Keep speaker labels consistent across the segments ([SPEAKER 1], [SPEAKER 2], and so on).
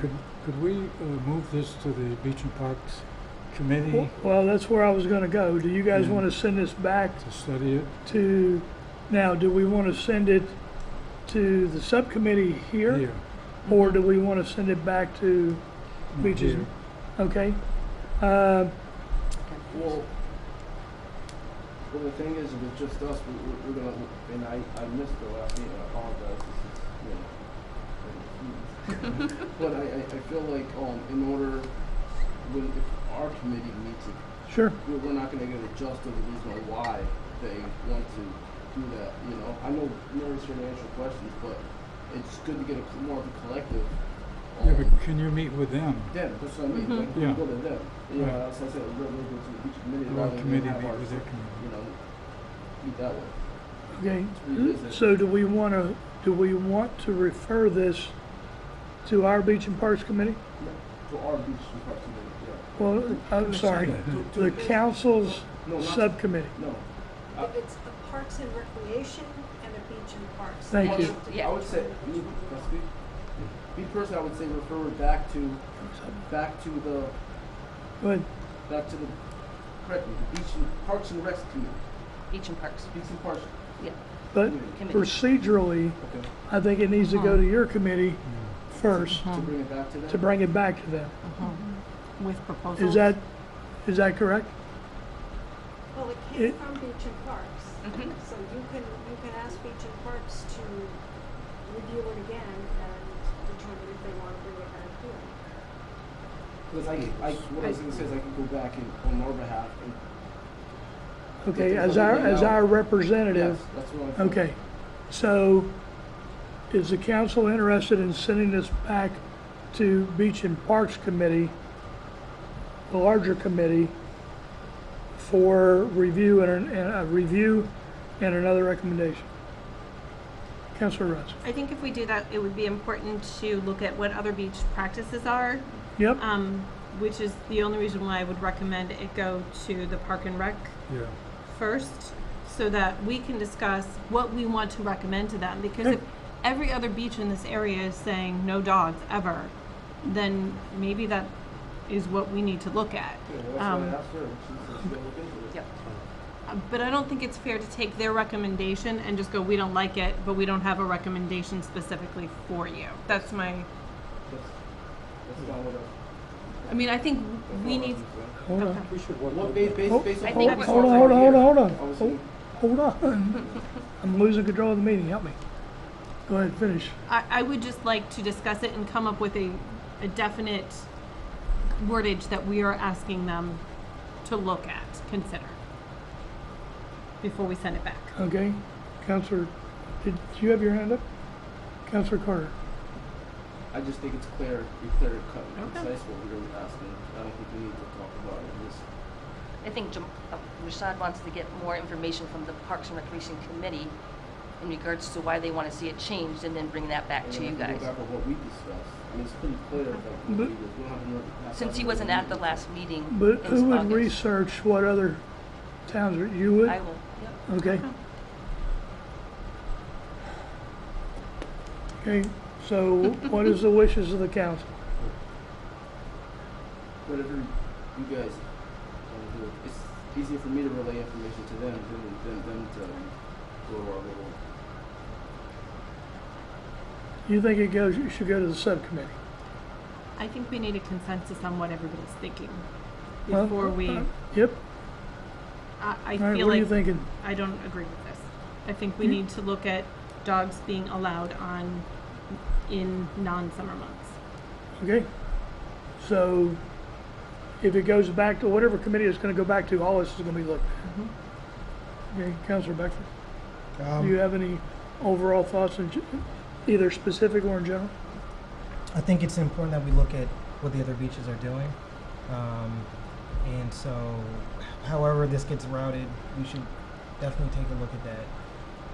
[SPEAKER 1] Could, could we uh, move this to the Beach and Parks Committee
[SPEAKER 2] Well, that's where I was gonna go. Do you guys
[SPEAKER 1] Yeah.
[SPEAKER 2] wanna send this back
[SPEAKER 1] to study it?
[SPEAKER 2] to, now, do we wanna send it to the subcommittee here? Or do we wanna send it back to,
[SPEAKER 1] not
[SPEAKER 2] Beaches.
[SPEAKER 1] here.
[SPEAKER 2] okay? Uh,
[SPEAKER 3] Well, well, the thing is, if it's just us, we, we- we're gonna, and I, I missed the last meeting, I apologize, this is, you know. I'm confused. But I, I, I feel like, um, in order, when, if our committee meets, it,
[SPEAKER 2] sure,
[SPEAKER 3] we're, we're not gonna get a just of the reason why they want to do that, you know? I know Mary's here to answer questions, but it's good to get a, co- more of a collective.
[SPEAKER 1] Yeah,
[SPEAKER 3] um,
[SPEAKER 1] but can you meet with them?
[SPEAKER 3] them,
[SPEAKER 2] Mm-hmm.
[SPEAKER 3] that's what I mean, like,
[SPEAKER 1] Yeah.
[SPEAKER 3] we go to them, you
[SPEAKER 1] Right.
[SPEAKER 3] know, that's what I said, "Oh, we're gonna go to the beach committee
[SPEAKER 1] Our
[SPEAKER 3] rather than
[SPEAKER 1] committee
[SPEAKER 3] have
[SPEAKER 1] meet
[SPEAKER 3] our,
[SPEAKER 1] with their committee.
[SPEAKER 3] you know, meet that way.
[SPEAKER 2] okay.
[SPEAKER 3] revisit.
[SPEAKER 2] So do we wanna, do we want to refer this to our Beach and Parks Committee?
[SPEAKER 3] Yeah, To our beach and park committee, yeah,
[SPEAKER 2] Well, I'm sorry, the council's
[SPEAKER 3] No, not-
[SPEAKER 2] subcommittee.
[SPEAKER 3] no,
[SPEAKER 4] If it's a Parks and Recreation and a Beach and Parks.
[SPEAKER 2] Thank
[SPEAKER 3] I
[SPEAKER 2] you.
[SPEAKER 3] would- I would say, me, can I speak? Me personally, I would say refer it back to, back to the,
[SPEAKER 2] But,
[SPEAKER 3] back to the, correct me, the beach and, parks and recs committee,
[SPEAKER 5] Beach and Parks.
[SPEAKER 3] beach and parks,
[SPEAKER 5] Yeah.
[SPEAKER 2] but
[SPEAKER 3] Committee.
[SPEAKER 2] procedurally,
[SPEAKER 3] okay,
[SPEAKER 2] I think it needs to go to your committee first
[SPEAKER 3] to bring it back to them?
[SPEAKER 2] Um, to bring it back to them.
[SPEAKER 5] With proposals.
[SPEAKER 2] Is that, is that correct?
[SPEAKER 4] Well, it came
[SPEAKER 2] It-
[SPEAKER 4] from Beach and Parks, so you can, you can ask Beach and Parks to review it again and determine if they want to bring it back here.
[SPEAKER 3] Cause I, I, what I was gonna say is I can go back and, on our behalf and.
[SPEAKER 2] Okay, as our, as our representative,
[SPEAKER 3] Yes, That's what I'm. feeling.
[SPEAKER 2] okay. So is the council interested in sending this back to Beach and Parks Committee, the larger committee, for review and, and a review and another recommendation? Councilor Russ?
[SPEAKER 6] I think if we do that, it would be important to look at what other beach practices are,
[SPEAKER 2] Yep,
[SPEAKER 6] um, which is the only reason why I would recommend it go to the Park and Rec
[SPEAKER 1] Yeah,
[SPEAKER 6] first, so that we can discuss what we want to recommend to them. Because if every other beach in this area is saying no dogs ever, then maybe that is what we need to look at.
[SPEAKER 3] Yeah, well, that's
[SPEAKER 6] Um,
[SPEAKER 3] what I asked her, and she said she'll look into it.
[SPEAKER 5] Yep.
[SPEAKER 6] Uh, But I don't think it's fair to take their recommendation and just go, we don't like it, but we don't have a recommendation specifically for you. That's my,
[SPEAKER 3] That's, that's not what I.
[SPEAKER 6] I mean, I think
[SPEAKER 3] that's
[SPEAKER 6] we
[SPEAKER 3] not
[SPEAKER 6] need,
[SPEAKER 3] what
[SPEAKER 2] hold on,
[SPEAKER 6] okay.
[SPEAKER 1] we should
[SPEAKER 3] I was
[SPEAKER 1] work
[SPEAKER 3] gonna say. What,
[SPEAKER 1] with
[SPEAKER 3] based,
[SPEAKER 1] them.
[SPEAKER 3] based, based
[SPEAKER 5] I
[SPEAKER 3] on.
[SPEAKER 5] think
[SPEAKER 3] what
[SPEAKER 5] we-
[SPEAKER 3] we
[SPEAKER 2] Hold on,
[SPEAKER 3] saw
[SPEAKER 2] hold on,
[SPEAKER 3] here,
[SPEAKER 2] hold on, Oh. hold on.
[SPEAKER 3] I was
[SPEAKER 2] Hold-
[SPEAKER 3] gonna-
[SPEAKER 2] hold on. I'm losing control of the meeting, help me. Go ahead, finish.
[SPEAKER 6] I, I would just like to discuss it and come up with a, a definite wordage that we are asking them to look at, consider, before we send it back.
[SPEAKER 2] Okay, Counselor, did you have your hand up? Counselor Carter?
[SPEAKER 3] I just think it's clear, be clear and cut and
[SPEAKER 6] Okay.
[SPEAKER 3] concise what we're asking. I don't think we need to talk about it, just,
[SPEAKER 5] I think Jam- uh, Rashad wants to get more information from the Parks and Recreation Committee in regards to why they want to see it changed and then bring that back
[SPEAKER 3] and
[SPEAKER 5] to
[SPEAKER 3] then
[SPEAKER 5] you
[SPEAKER 3] we can
[SPEAKER 5] guys. Mm-hmm.
[SPEAKER 3] go back on what we discussed. I mean, it's pretty clear that we
[SPEAKER 2] But-
[SPEAKER 3] need to- we don't have another. pass
[SPEAKER 5] Since
[SPEAKER 3] out
[SPEAKER 5] he
[SPEAKER 3] another
[SPEAKER 5] wasn't at the
[SPEAKER 3] meeting.
[SPEAKER 5] last meeting
[SPEAKER 2] But who
[SPEAKER 5] in
[SPEAKER 2] would
[SPEAKER 5] August.
[SPEAKER 2] research what other towns are, you would?
[SPEAKER 5] I will, yep.
[SPEAKER 2] Okay. Okay, so what is the wishes of the council?
[SPEAKER 3] Whatever you guys wanna do, it's easier for me to relay information to them than, than them to go to our little.
[SPEAKER 2] You think it goes, you should go to the subcommittee?
[SPEAKER 6] I think we need a consensus on what everybody's thinking
[SPEAKER 2] Well,
[SPEAKER 6] before we,
[SPEAKER 2] uh, Yep,
[SPEAKER 6] I, I
[SPEAKER 2] all right,
[SPEAKER 6] feel
[SPEAKER 2] what are you
[SPEAKER 6] like
[SPEAKER 2] thinking?
[SPEAKER 6] I don't agree with this. I think we need to look at dogs being allowed on, in non-summer months.
[SPEAKER 2] Okay, so if it goes back to whatever committee it's gonna go back to, all this is gonna be looked
[SPEAKER 6] Mm-hmm.
[SPEAKER 2] at. Okay, Counselor Beckford, do you
[SPEAKER 7] Um,
[SPEAKER 2] have any overall thoughts in, ge- either specific or in general?
[SPEAKER 7] I think it's important that we look at what the other beaches are doing. Um, and so, however this gets routed, we should definitely take a look at that.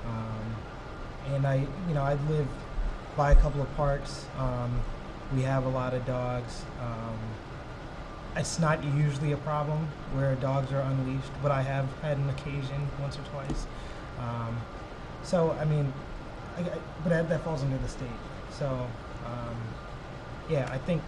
[SPEAKER 7] Um, and I, you know, I live by a couple of parks. Um, we have a lot of dogs. Um, it's not usually a problem where dogs are unleashed, but I have had an occasion once or twice. Um, so I mean, I, I- but that, that falls under the state. So um, yeah, I think